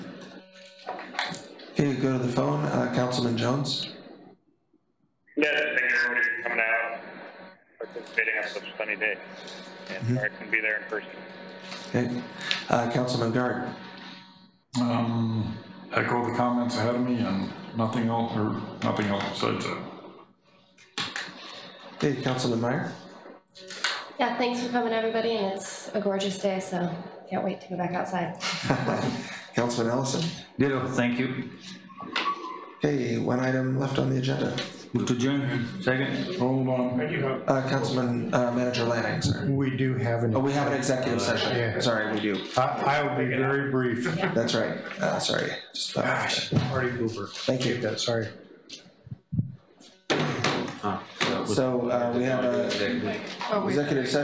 Okay, go to the phone, uh, Councilman Jones. Yes, thank you everybody for coming out, participating on such a sunny day. And sorry I couldn't be there in person. Okay, uh, Councilman Guard. Um, echo the comments ahead of me and nothing else, or nothing else besides that. Okay, Councilman Meyer. Yeah, thanks for coming, everybody, and it's a gorgeous day, so can't wait to go back outside. Councilman Ellison. Ditto, thank you. Okay, one item left on the agenda. Move to adjourn. Second. Hold on, Uh, Councilman, uh, Manager Lanning, sorry. We do have Oh, an, we have an executive session. Uh, Yeah. Sorry, we do. I, I will be very brief. That's right. Uh, sorry. Just thought- Gosh, Marty Hoover. Thank you. That, sorry. So, uh, we have a Oh, wait. uh, Oh, executive session